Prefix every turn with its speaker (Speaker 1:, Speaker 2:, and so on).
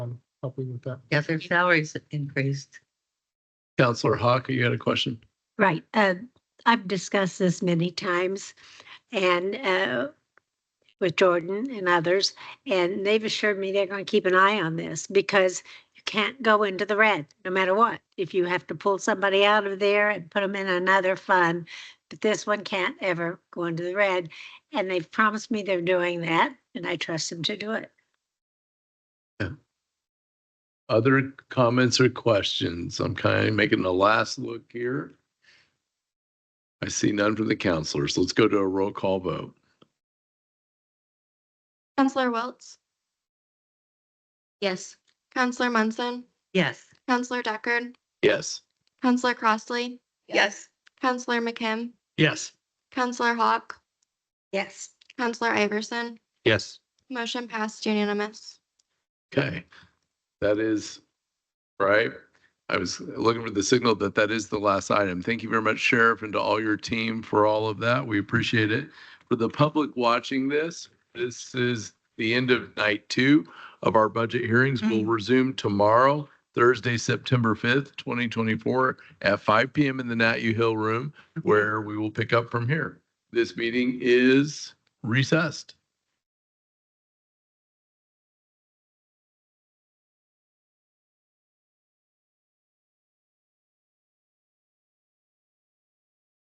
Speaker 1: um, helping with that.
Speaker 2: Yeah, their salaries increased.
Speaker 3: Counselor Hawk, you had a question?
Speaker 4: Right. Uh, I've discussed this many times and uh, with Jordan and others, and they've assured me they're going to keep an eye on this because you can't go into the red no matter what. If you have to pull somebody out of there and put them in another fund, but this one can't ever go into the red. And they've promised me they're doing that, and I trust them to do it.
Speaker 3: Other comments or questions? I'm kind of making a last look here. I see none from the counselors. Let's go to a roll call vote.
Speaker 5: Counselor Wiltz,
Speaker 2: Yes.
Speaker 5: Counselor Munson,
Speaker 2: Yes.
Speaker 5: Counselor Deckard,
Speaker 3: Yes.
Speaker 5: Counselor Crossley,
Speaker 2: Yes.
Speaker 5: Counselor McKim,
Speaker 3: Yes.
Speaker 5: Counselor Hawk,
Speaker 2: Yes.
Speaker 5: Counselor Iverson.
Speaker 3: Yes.
Speaker 5: Motion passed unanimous.
Speaker 3: Okay. That is, right? I was looking for the signal that that is the last item. Thank you very much, Sheriff, and to all your team for all of that. We appreciate it. For the public watching this, this is the end of night two of our budget hearings. We'll resume tomorrow, Thursday, September 5th, 2024, at 5 PM in the Nat U Hill Room, where we will pick up from here. This meeting is recessed.